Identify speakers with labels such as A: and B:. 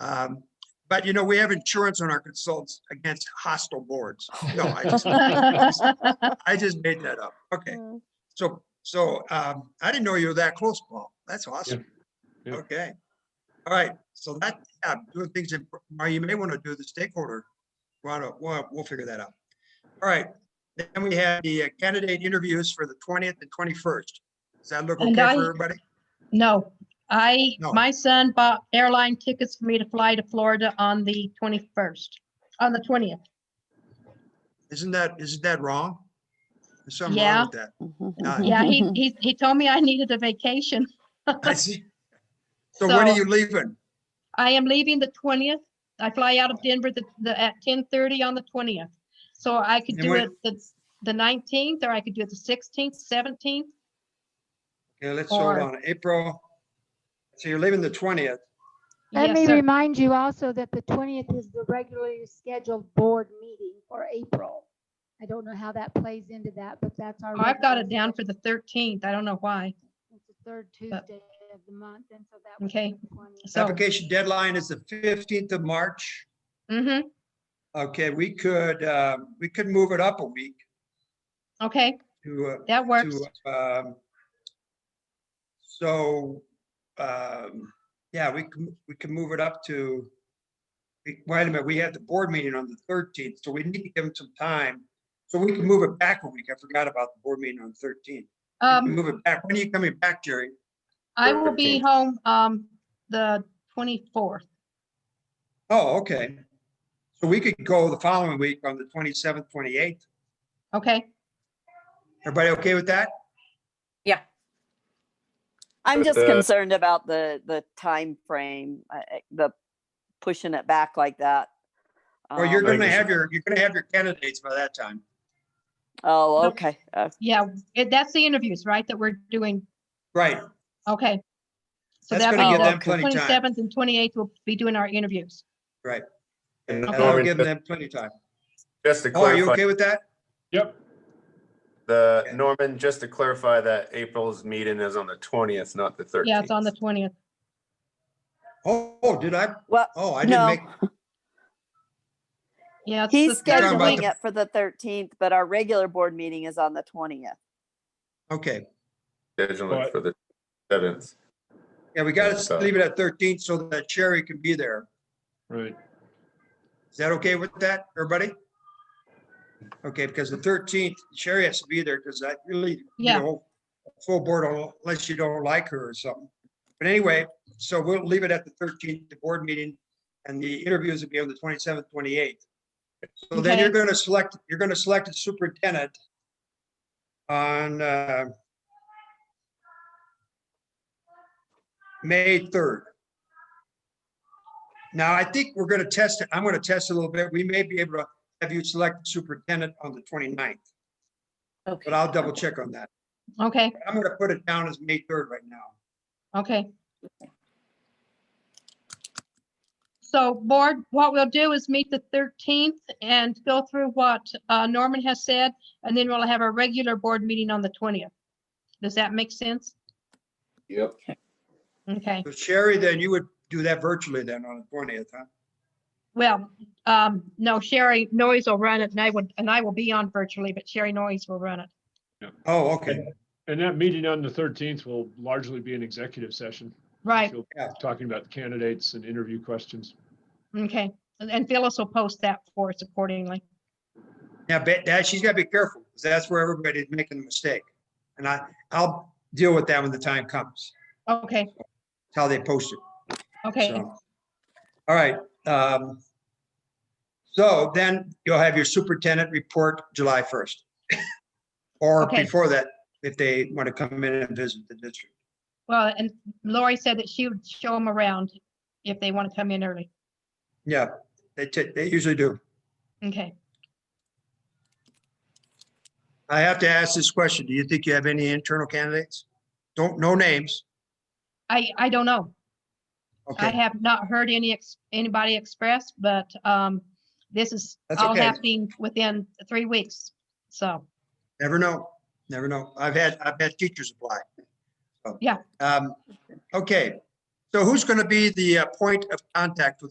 A: Um, But, you know, we have insurance on our consultants against hostile boards. No, I just, I just made that up. Okay, so, so um, I didn't know you were that close, Paul. That's awesome.
B: Yeah.
A: Okay. All right, so that, yeah, doing things, in- or you may want to do the stakeholder. Well, we'll, we'll figure that out. All right, then we have the uh, candidate interviews for the 20th and 21st. Does that look okay
C: And
A: for
C: I-
A: everybody?
C: No, I,
A: No.
C: my son bought airline tickets for me to fly to Florida on the 21st, on the 20th.
A: Isn't that, isn't that wrong? There's something
C: Yeah.
A: wrong with that.
D: Mm-hmm.
A: Uh,
C: Yeah, he, he, he told me I needed a vacation.
A: I see. So when
C: So-
A: are you leaving?
C: I am leaving the 20th. I fly out of Denver the, the, at 10:30 on the 20th. So I could
A: And
C: do
A: when-
C: it the, the 19th, or I could do it the 16th, 17th.
A: Yeah, let's hold
C: Or-
A: on, April. So you're leaving the twentieth.
E: Let
C: Yes,
E: me
C: sir.
E: remind you also that the twentieth is the regularly scheduled board meeting for April. I don't know how that plays into that, but that's our.
C: Oh, I've got it
E: regularly
C: down for the 13th. I don't know why.
E: scheduled- It's the third Tuesday of the month, and so that. would be
C: Okay.
E: the 20th.
C: So,
A: Application deadline is the fifteenth of March.
C: mm-hmm,
A: Okay, we could, uh, we could move it up a week
C: okay,
A: to,
C: that
A: uh,
C: works.
A: to, um, so, um, yeah, we can, we can move it up to, we- wait a minute, we had the board meeting on the thirteenth, so we need to give them some time. So we can move it back a week. I forgot about the board meeting on thirteenth.
C: Um,
A: Move it back. When are you coming back, Jerry?
C: I will be
A: 13th.
C: home, um, the 24th.
A: Oh, okay. So we could go the following week on the twenty-seventh, twenty-eighth.
C: Okay,
A: Everybody okay with that?
D: I'm
B: But,
D: just
B: uh,
D: concerned about the, the timeframe, uh, uh, the pushing it back like that.
A: Or you're
D: Um,
B: I
A: gonna
B: guess-
A: have your, you're gonna have your candidates by that time.
D: Oh,
C: Okay.
D: okay. Uh,
C: yeah, it- that's the interviews, right, that we're doing?
A: Right.
C: Okay. So
A: That's
C: that
A: gonna
C: means
A: give
C: that
A: them plenty of time.
C: 27th and 28th will be doing our interviews.
B: And
C: Okay.
A: That'll
B: Norman,
A: give
B: just-
A: them plenty of time.
B: Just to
A: Oh, are you
B: clarify,
A: okay with that?
B: yep. The,
A: Okay.
B: Norman, just to clarify that April's meeting is on the twentieth, not the thirteenth.
C: Yeah, it's on the 20th.
A: Oh, oh, did I?
D: Well,
A: Oh, I didn't
D: no,
A: make,
C: Yeah. it's
D: he's
C: the third
A: Talking about
D: scheduling
C: week.
A: the-
D: it for the thirteenth, but our regular board meeting is on the twentieth.
A: okay.
B: Scheduling for the seventh.
A: Yeah, we
B: So-
A: gotta leave it at thirteen so that Sherry can be there.
B: Right.
A: Is that okay with that, everybody? Okay, because the thirteenth, Sherry has to be there because I really, you
C: Yeah.
A: know, full board on- unless you don't like her or something. But anyway, so we'll leave it at the thirteenth, the board meeting, and the interviews will be on the twenty-seventh, twenty-eighth. So then you're
C: Okay.
A: gonna select, you're gonna select a superintendent on uh, May third. Now, I think we're gonna test it. I'm gonna test it a little bit. We may be able to have you select superintendent on the 29th, but I'll double check on that.
C: Okay,
A: I'm gonna put it down as May third right now.
C: okay. So board, what we'll do is meet the 13th and go through what uh, Norman has said, and then we'll have a regular board meeting on the 20th. Does that make sense?
B: Yep.
C: Okay,
A: So Sherry, then you would do that virtually then on the 20th, huh?
C: well, um, no, Sherry Noyes will run it and I would, and I will be on virtually, but Sherry Noyes will run it.
A: Oh, okay.
F: And that meeting on the thirteenth will largely be an executive session.
C: Right,
F: She'll be
A: Yeah.
F: Talking about the candidates and interview questions.
C: okay. And- And Phyllis will post that for us accordingly.
A: Now, bet that she's gotta be careful, because that's where everybody's making a mistake. And I, I'll deal with that when the time comes.
C: Okay,
A: It's how they post it.
C: okay.
A: So, All right. um, So then you'll have your superintendent report July 1st. Or
C: Okay.
A: before that, if they want to come in and visit the district.
C: Well, and Lori said that she would show them around if they want to come in early.
A: Yeah, they, ti- they usually do.
C: Okay.
A: I have to ask this question. Do you think you have any internal candidates? Don't, no names.
C: I, I don't know. I
A: Okay,
C: have not heard any, ex anybody express, but um, this is
A: That's
C: all
A: okay.
C: happening within three weeks. So,
A: never know, never know. I've had, I've had teachers apply. So,
C: Yeah.
A: um, Okay, so who's going to be the uh, point of contact with